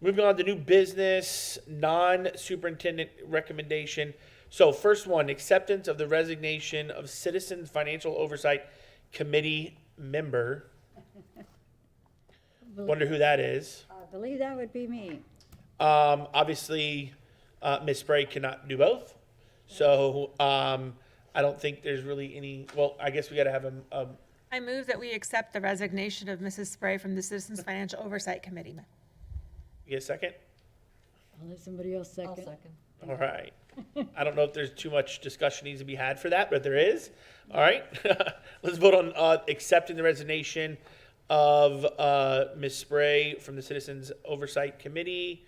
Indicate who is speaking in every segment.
Speaker 1: Moving on to new business, non-superintendent recommendation. So first one, acceptance of the resignation of Citizens Financial Oversight Committee member. Wonder who that is.
Speaker 2: I believe that would be me.
Speaker 1: Um, obviously, uh, Ms. Spray cannot do both. So, um, I don't think there's really any, well, I guess we gotta have a, a,
Speaker 3: I move that we accept the resignation of Mrs. Spray from the Citizens Financial Oversight Committee.
Speaker 1: you get a second?
Speaker 2: I'll let somebody else second.
Speaker 1: All right. I don't know if there's too much discussion needs to be had for that, but there is. All right. Let's vote on uh, accepting the resignation of uh, Ms. Spray from the Citizens Oversight Committee.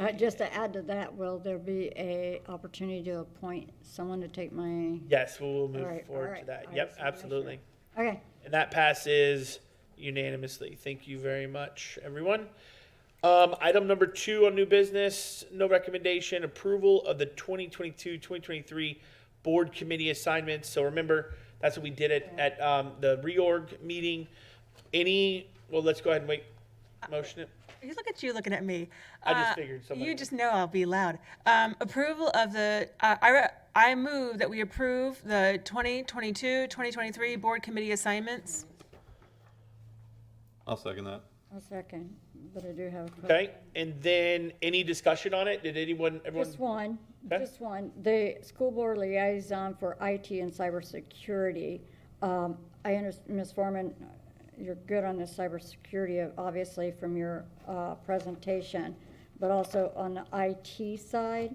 Speaker 2: Uh, just to add to that, will there be a opportunity to appoint someone to take my,
Speaker 1: Yes, we will
Speaker 2: All
Speaker 1: move
Speaker 2: right, all
Speaker 1: forward to
Speaker 2: right,
Speaker 1: that. Yep,
Speaker 2: I just wanna make sure.
Speaker 1: absolutely.
Speaker 2: okay,
Speaker 1: And that passes unanimously. Thank you very much, everyone. Um, item number two on new business, no recommendation, approval of the 2022, 2023 board committee assignments. So remember, that's what we did at, at, um, the reorg meeting. Any, well, let's go ahead and wait. Motion it.
Speaker 3: You look at you looking at me.
Speaker 1: I just
Speaker 3: Uh,
Speaker 1: figured somebody
Speaker 3: You
Speaker 1: would.
Speaker 3: just know I'll be loud. Um, approval of the, uh, I, re- I move that we approve the 2022, 2023 board committee assignments.
Speaker 4: I'll second that.
Speaker 2: I'll second, but I do have a question.
Speaker 1: Okay. And then any discussion on it? Did anyone, everyone?
Speaker 2: Just one,
Speaker 1: Okay.
Speaker 2: just one. The school board liaison for IT and cybersecurity. Um, I understand, Ms. Foreman, you're good on the cybersecurity, obviously, from your uh, presentation, but also on the IT side.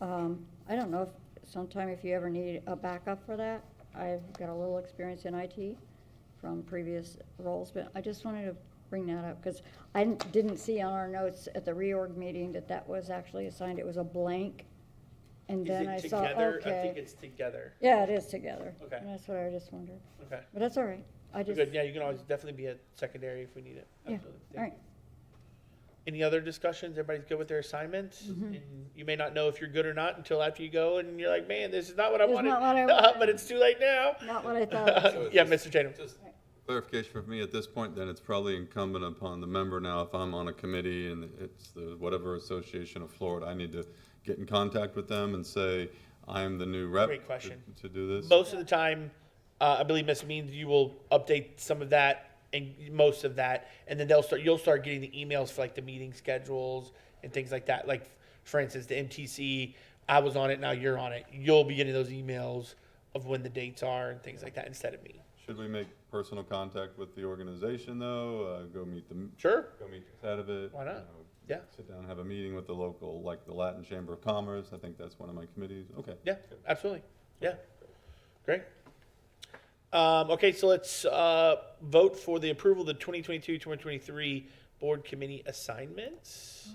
Speaker 2: um, I don't know if, sometime if you ever need a backup for that. I've got a little experience in IT from previous roles, but I just wanted to bring that up because I didn't- didn't see on our notes at the reorg meeting that that was actually assigned, it was a blank. And
Speaker 1: Is
Speaker 2: then
Speaker 1: it
Speaker 2: I saw,
Speaker 1: together? I think
Speaker 2: okay.
Speaker 1: it's together.
Speaker 2: Yeah, it is together.
Speaker 1: Okay.
Speaker 2: And That's what I just wondered,
Speaker 1: Okay.
Speaker 2: but that's all right. I
Speaker 1: We're
Speaker 2: just,
Speaker 1: Good.
Speaker 2: yeah,
Speaker 1: Yeah, you can always definitely be a secondary if we need it.
Speaker 2: all
Speaker 1: Absolutely. Thank you.
Speaker 2: right.
Speaker 1: Any other discussions? Everybody's good with their assignments?
Speaker 2: Mm-hmm.
Speaker 1: And you may not know if you're good or not until after you go and you're like, man, this is not what I
Speaker 2: It's
Speaker 1: wanted.
Speaker 2: not what I wanted.
Speaker 1: But it's too late now.
Speaker 2: Not what I thought.
Speaker 1: yeah, Mr. Tatum.
Speaker 4: Just clarification for me, at this point, then it's probably incumbent upon the member now, if I'm on a committee and it's the whatever association of Florida, I need to get in contact with them and say, I'm the new rep.
Speaker 1: Great
Speaker 4: to-
Speaker 1: question.
Speaker 4: To do this?
Speaker 1: Most of the time, uh, I believe Ms. Means you will update some of that and most of that, and then they'll start. You'll start getting the emails for like the meeting schedules and things like that. Like for instance, the MTC, I was on it, now you're on it. You'll be getting those emails of when the dates are and things like that instead of me.
Speaker 4: Should we make personal contact with the organization, though? Uh, Go meet the,
Speaker 1: Sure.
Speaker 4: go meet the head of it?
Speaker 1: Why not?
Speaker 4: you know,
Speaker 1: Yeah.
Speaker 4: Sit down, and have a meeting with the local, like the Latin Chamber of Commerce. I think that's one of my committees. Okay.
Speaker 1: Yeah, absolutely. Yeah. Great. Um, okay, so let's, uh, vote for the approval of the 2022, 2023 board committee assignments.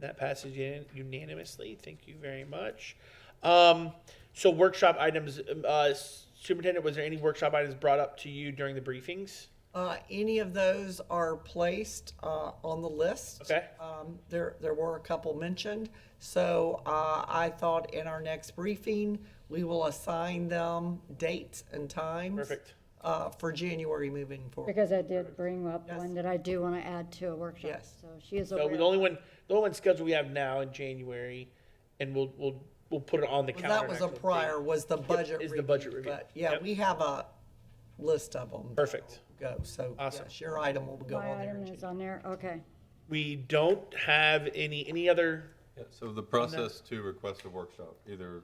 Speaker 1: That passes unan- unanimously. Thank you very much. Um, so workshop items, um, uh, Superintendent, was there any workshop items brought up to you during the briefings?
Speaker 5: Uh, Any of those are placed uh, on the list.
Speaker 1: Okay.
Speaker 5: Um, There, there were a couple mentioned, so uh, I thought in our next briefing, we will assign them dates and times.
Speaker 1: Perfect.
Speaker 5: uh, For January moving forward.
Speaker 2: Because I did bring up
Speaker 5: Yes.
Speaker 2: one that I do want to add to a workshop,
Speaker 5: Yes.
Speaker 2: so she is
Speaker 1: So
Speaker 2: aware.
Speaker 1: Uh, the only one, the only one scheduled we have now in January, and we'll, we'll, we'll put it on the calendar.
Speaker 5: That was a
Speaker 1: next week.
Speaker 5: prior, was the budget
Speaker 1: is
Speaker 5: review.
Speaker 1: the budget review.
Speaker 5: But yeah,
Speaker 1: Yep.
Speaker 5: we have a list of them.
Speaker 1: Perfect.
Speaker 5: Go, so
Speaker 1: Awesome.
Speaker 5: yes, your item will go
Speaker 2: My
Speaker 5: on there.
Speaker 2: item
Speaker 5: in
Speaker 2: is
Speaker 5: January.
Speaker 2: on there, okay.
Speaker 1: We don't have any, any other
Speaker 4: Yeah, So the process to request a workshop, either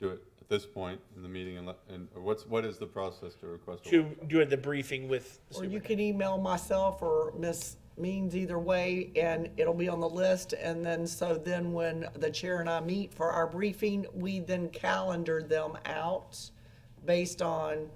Speaker 4: do it at this point in the meeting and let, and, or what's, what is the process to request? a
Speaker 1: to
Speaker 4: workshop?
Speaker 1: do the briefing with the
Speaker 5: Or
Speaker 1: super-
Speaker 5: you can email myself or Miss Means either way, and it'll be on the list. And then, so then when the chair and I meet for our briefing, we then calendar them out based on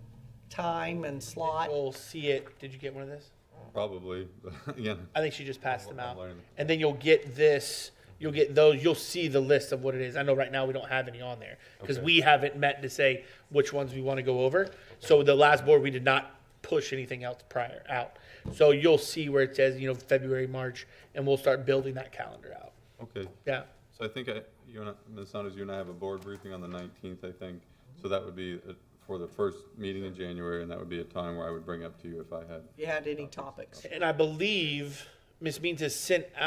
Speaker 5: time and slot.
Speaker 1: We'll see it. Did you get one of this?
Speaker 4: Probably, yeah.
Speaker 1: I think she just passed them out.
Speaker 4: I'm learning.
Speaker 1: And then you'll get this, you'll get those, you'll see the list of what it is. I know right now we don't have any on there because
Speaker 4: Okay.
Speaker 1: we haven't met to say which ones we want to go over. So the last board, we did not push anything else prior out. So you'll see where it says, you know, February, March, and we'll start building that calendar out.
Speaker 4: Okay,
Speaker 1: Yeah.
Speaker 4: so I think I, you and, I- Ms. Saunders, you and I have a board briefing on the nineteenth, I think. So that would be uh, for the first meeting in January, and that would be a time where I would bring up to you if I had
Speaker 5: If you had any topics.
Speaker 1: And I believe Ms. Means has sent out.